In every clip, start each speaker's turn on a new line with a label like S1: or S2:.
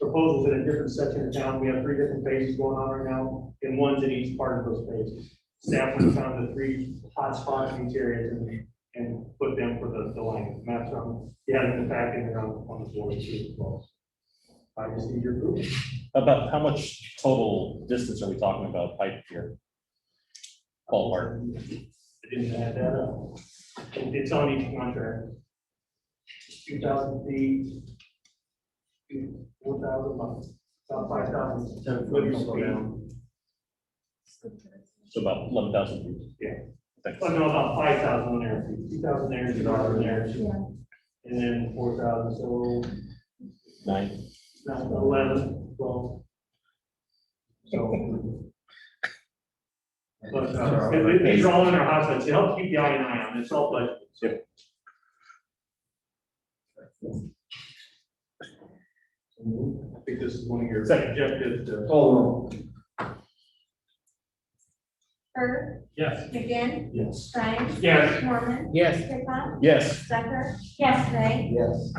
S1: proposals in a different section of town. We have three different phases going on right now, and one's in each part of those phases. Staff went down to three hotspots in these areas and, and put them for the, the line maps on. You had it in the packet and on, on the board too as well. I just need your approval.
S2: About how much total distance are we talking about pipe here? Ballpark.
S1: I didn't add that up. It- It's on each contract. Two thousand feet. Four thousand miles, about five thousand.
S3: Ten
S1: foot
S3: foot
S1: slow down.
S3: down.
S2: So about eleven thousand feet.
S1: Yeah.
S2: Thanks.
S1: Oh, no, about five thousand there, two thousand there, two thousand there,
S4: Yeah.
S1: and then four thousand, so
S2: Nine.
S1: that's eleven, twelve. So. But, uh, and these are all in our hotspots, to help keep the eye and eye on, it's all budget. I think this is one of your objectives uh, to.
S3: Call
S4: Bird,
S1: Yes.
S4: McGinn,
S1: Yes.
S4: Stein.
S1: Yes.
S4: Mormon.
S3: Yes.
S4: Pickla.
S2: Yes.
S4: Sucker. Yes. Ray.
S3: Yes.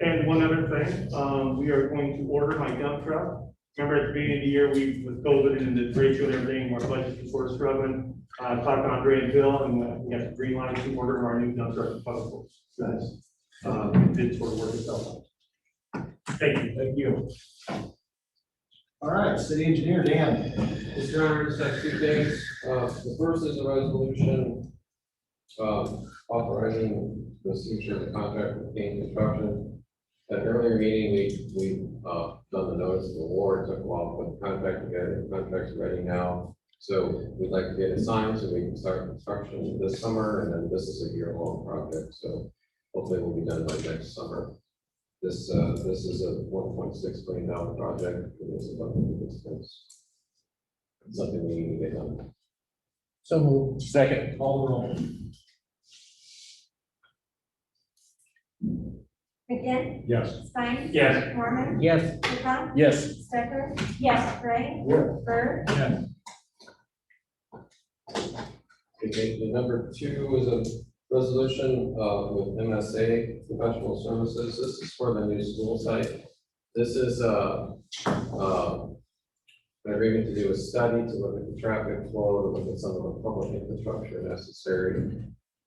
S1: And one other thing, um, we are going to order my dump truck. Remember at the beginning of the year, we, with COVID and the ratio and everything, our budget was sort of struggling. I talked to Andre and Bill, and uh, we have to green line to order our new dump truck. possible. Nice. Um, it did sort of work itself out. Thank you. Thank you.
S3: All right, city engineer, Dan.
S5: Mr. Chairman, just have two things. Uh, The first is a resolution um, authorizing the signature of the contract with Kane Construction. At an earlier meeting, we, we uh, done the notice of award, took a while to put the contract together, the contract's ready now. So we'd like to get it signed so we can start construction this summer, and then this is a year-long project, so hopefully we'll be done by next summer. This, uh, this is a one point six million dollar project, it is a lot of expense something we need to get done.
S3: So moved.
S2: Second.
S3: Call the roll.
S4: McGinn,
S1: Yes.
S4: Stein.
S1: Yes.
S4: Mormon.
S3: Yes.
S4: Pickla.
S2: Yes.
S4: Sucker. Yes. Ray. Bird.
S5: Okay, the number two is a resolution, uh, with MSA Professional Services. This is for the new school site. This is, uh, uh, an agreement to do a study to look at the traffic flow, to look at some of the public infrastructure necessary,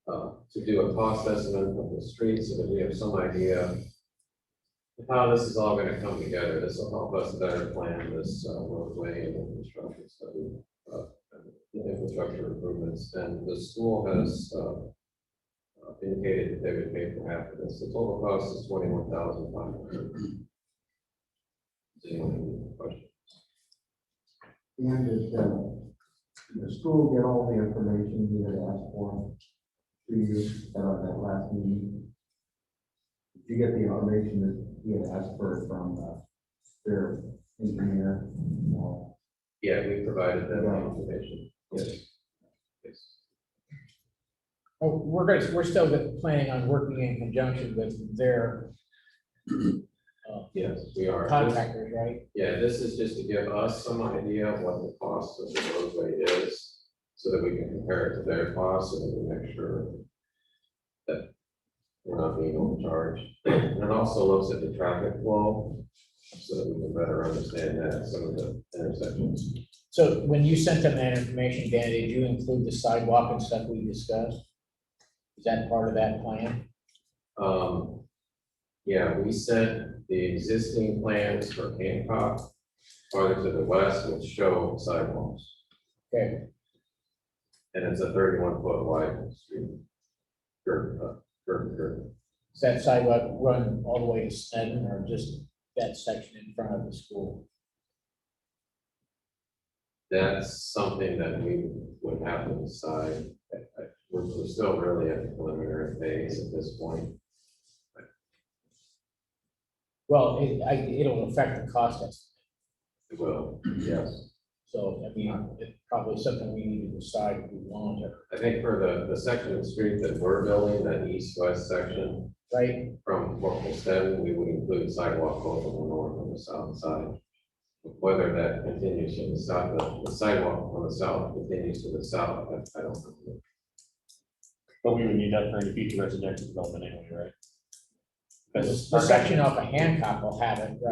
S5: uh, to do a cost estimate of the streets so that we have some idea of how this is all gonna come together. This will help us better plan this uh, roadway and infrastructure study the infrastructure improvements, and the school has uh, uh, indicated that they would pay for half of this. The total cost is twenty-one thousand five hundred. Does anyone have any questions?
S6: And did, uh, the school get all the information you had asked for? To you at that last meeting? Did you get the information that you had asked for from, uh, their engineer? Uh,
S5: Yeah, we provided them the information. Yes. Yes.
S7: Well, We're going, to we're still good- planning on working in conjunction with their uh,
S5: Yes, we are. This-
S7: contractors, right?
S5: Yeah, this is just to give us some idea of what the cost of the roadway is, so that we can compare it to their costs and we make sure that we're not being overcharged. And it also looks at the traffic flow, so that we can better understand that, some of the intersections.
S7: So when you sent them that information, Dan, did you include the sidewalk and stuff we discussed? Is that part of that plan?
S5: Um, yeah, we sent the existing plans for Hancock farther to the west, which show sidewalks,
S7: Okay,
S5: and it's a thirty-one foot wide street. Curb, uh, curb, curb.
S7: does that sidewalk run all the way to Sneddon or just that section in front of the school?
S5: That's something that we would have to decide. I- I- We're, we're still really at the preliminary phase at this point.
S7: Well, it, I, it'll affect the cost estimate.
S5: It will, yes.
S7: So, I mean, it's probably something we need to decide if we want to,
S5: I think for the, the section of the street that we're building, that east-west section
S7: right?
S5: from Corporal Seven, we would include sidewalk both on the north and the south side. Whether that continues to the south, the sidewalk on the south continues to the south, I- I don't know.
S2: But we would need that for any future residential development anyway, right?
S7: The section off of Hancock will have it, right?